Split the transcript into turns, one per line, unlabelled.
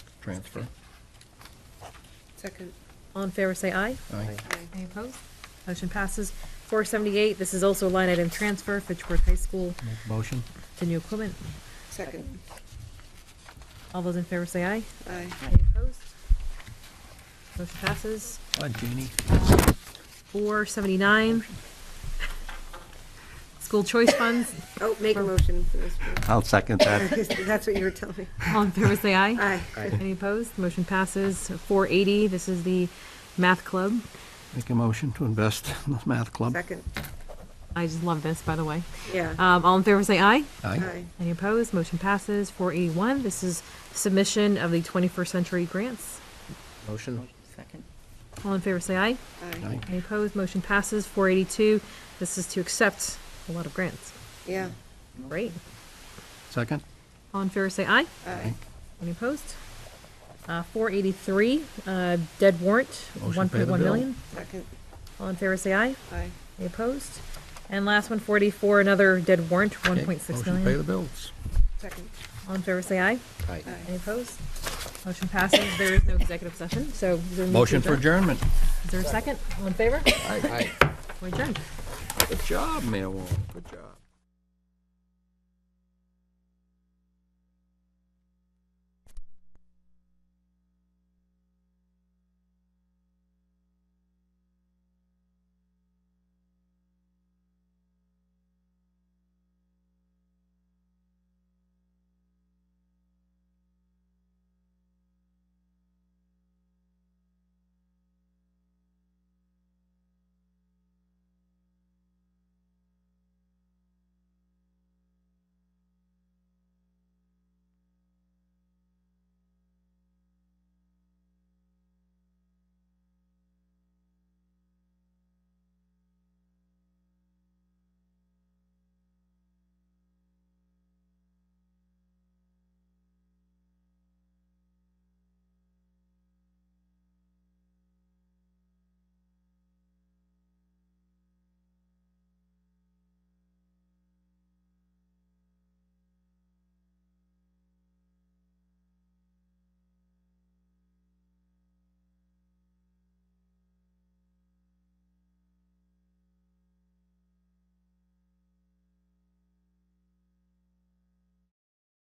transfer.
Second.
All in favor, say aye.
Aye.
Any opposed? Motion passes. 478, this is also a line item transfer for Fitchburg High School
Make a motion.
to new equipment.
Second.
All those in favor, say aye.
Aye.
Any opposed? Motion passes.
Hi, Jeannie.
479, school choice funds.
Oh, make a motion for this. one.
I'll second that.
That's what you were telling me.
All in favor, say aye.
Aye.
Any opposed? Motion passes. 480, this is the math club.
Make a motion to invest in the math club.
Second.
I just love this, by the way.
Yeah.
Um, All in favor, say aye.
Aye.
Aye.
Any opposed? Motion passes. 481, this is submission of the 21st century grants.
Motion?
Second.
All in favor, say aye.
Aye.
Aye.
Any opposed? Motion passes. 482, this is to accept a lot of grants.
Yeah.
Great.
Second?
All in favor, say aye.
Aye.
Any opposed? Uh, 483, uh, dead warrant,
Motion to pay the bill.
1.1 million.
Second.
All in favor, say aye.
Aye.
Any opposed? And last one, 44, another dead warrant,
Okay,
1.6
Motion to pay the
million.
bills.
Second.
All in favor, say aye.
Aye.
Any
Aye.
opposed? Motion passes. There is no executive session, so. is there a need to
Motion for adjournment.
Is there a second? All in favor?
Aye.
We're adjourned.
Good job, Mayor Warren. Good job.